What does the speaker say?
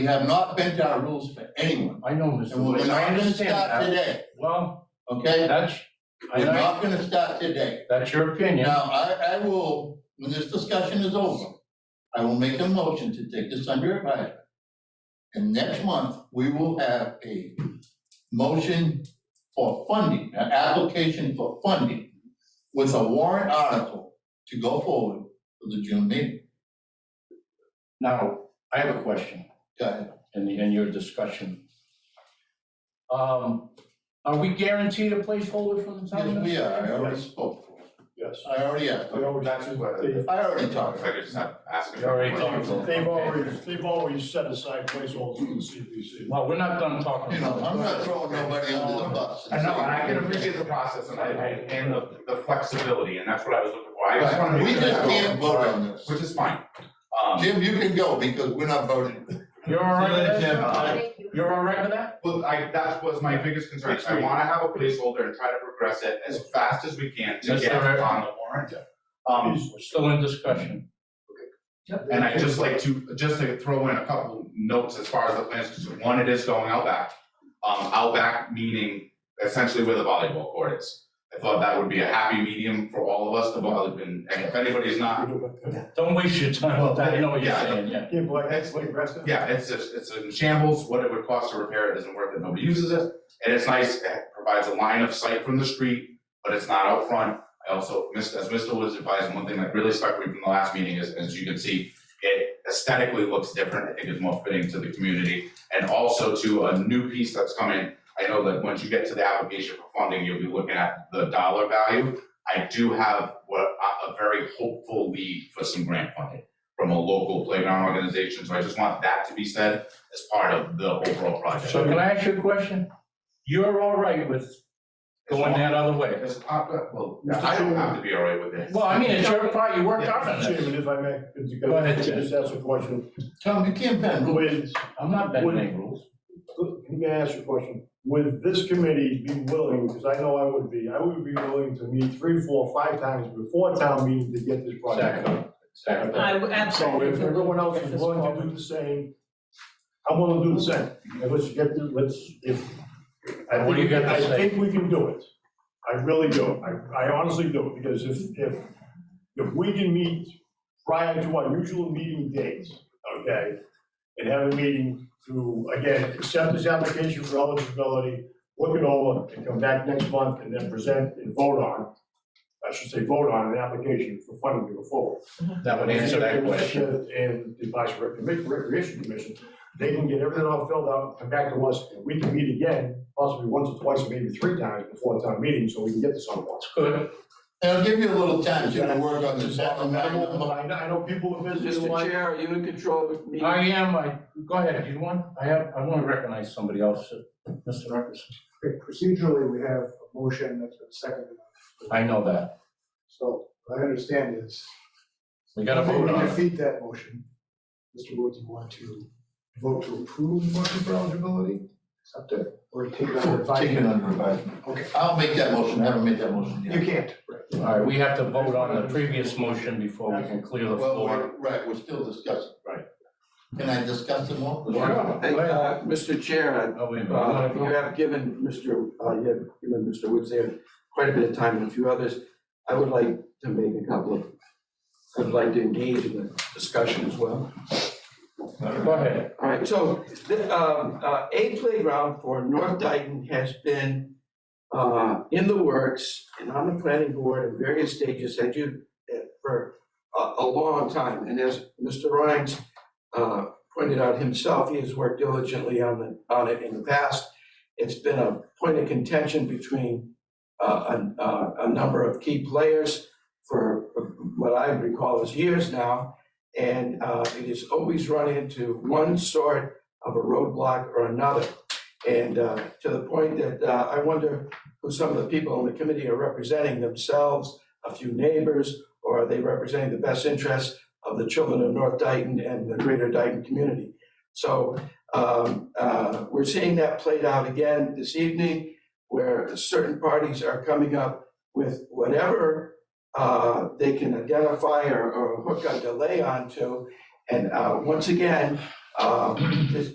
We have not bent our rules for anyone, I know, Mr. and we're Lewis, I not gonna understand start that. today, Well, okay? that's, I, We're know- not gonna start today. that's your opinion. Now, I, I will, when this discussion is over, I will make a motion to take this under advisement. And next month, we will have a motion for funding, an application for funding with a warrant article to go forward for the June meeting. Now, I have a question Go ahead. in the, in your discussion. Um, are we guaranteed a placeholder from the town? Yes, we are, I already spoke. Yes. I already asked. They always, That's what- they- I already talked. If I could just have, ask. You already talked about they've always, they've always set aside placeholders for the CPC. Well, we're not done talking You know, about it. I'm not throwing nobody under the bus. I know, and I can appreciate the process and I, I- and the, the flexibility, and that's what I was looking for, I just wanna Right, make We sure. just that- can't vote on this. Which is fine, um, Jim, you can go because we're not voting. You're all right with Jim. that? Thank you. You're all right with that? but I, that was my biggest concern, I wanna have a placeholder and try to progress it as fast as we can to That's get all right. on the warrant. Um, We're still in discussion. and I just like to, just to throw in a couple notes as far as the plans, because one, it is going out back. Um, out back meaning essentially where the volleyball court is, I thought that would be a happy medium for all of us, the vol, and if anybody's not Don't waste your time with that, I know what you're Yeah. saying, yeah. Yeah, but That's- aggressive. Yeah, it's just, it's in shambles, what it would cost to repair it isn't worth it, nobody uses it, and it's nice, it provides a line of sight from the street, but it's not out front. I also, missed- as Mr. was advising, one thing that really stuck with me from the last meeting is, as you can see, it aesthetically looks different, I think it's more fitting to the community, and also to a new piece that's coming. I know that once you get to the application for funding, you'll be looking at the dollar value. I do have what, a, a very hopeful lead for some grant funding from a local playground organization, so I just want that to be said as part of the overall project. So can I ask you a question? You're all right with going that other way? It's, uh, well, I don't have to be all right with it. Well, I mean, it's your part, you worked Yeah, hard on Chairman, this. if I may, could you Go ahead, Jim. just ask a question? Tom, you can't bend rules. With, I'm not bending any rules. let me ask you a question. Would this committee be willing, because I know I would be, I would be willing to meet three, four, five times before town meeting to get this project done. Second. I would So absolutely. if everyone else is willing to do the same, I'm willing to do the same, and let's get, the- let's, if. I What do you think- got to say? I think we can do it, I really do, I, I honestly do, because if, if, if we can meet prior to our usual meeting dates, okay? And have a meeting to, again, accept this application for eligibility, look it over, and come back next month and then present and vote on, I should say vote on an application for funding to go forward. That would answer that question. And the Vice Rec- Rec- Recreation Commission, they can get everything all filled out, come back to us, and we can meet again, possibly once or twice, maybe three times before the town meeting, so we can get this on once. Good. And I'll give you a little time to work on this. I I'm not gonna- know, I know- I know people are busy. Mr. Chair, are you in control of me? I am, I, go ahead, you want, I have, I want to recognize somebody else, Mr. Ruckus. Okay, procedurally, we have a motion that's been seconded, I know that. so what I understand is. We got to vote You on it. Defeat that motion. Mr. Woods, you want to vote to approve the motion for eligibility, accept it, or take it under Take it advisement? under advisement. Okay. I'll make that motion. I haven't made that motion You yet. can't, All right, we have to vote on the previous motion before we can clear the Well, floor. we're, right, we're still discussing. Right. Can I discuss it more? Sure, go Hey, ahead. uh, Mr. Chair, Oh, wait a minute. I uh, wanna you vote. have given Mr., uh, you have given Mr. Woods there quite a bit of time and a few others. I would like to make a couple of, I'd like to engage in the discussion as well. Go ahead. All right, so, the, um, uh, a playground for North Dayton has been, uh, in the works and on the planning board at various stages, had you, uh, for a, a long time, and as Mr. Rhines, uh, pointed out himself, he has worked diligently on the, on it in the past. It's been a point of contention between, uh, a, a, a number of key players for what I recall as years now. And uh, it has always run into one sort of a roadblock or another. And uh, to the point that uh, I wonder who some of the people on the committee are representing themselves, a few neighbors, or are they representing the best interests of the children of North Dayton and the greater Dayton community? So um, uh, we're seeing that played out again this evening, where certain parties are coming up with whatever uh, they can identify or, or hook a delay onto. And uh, once again, um, this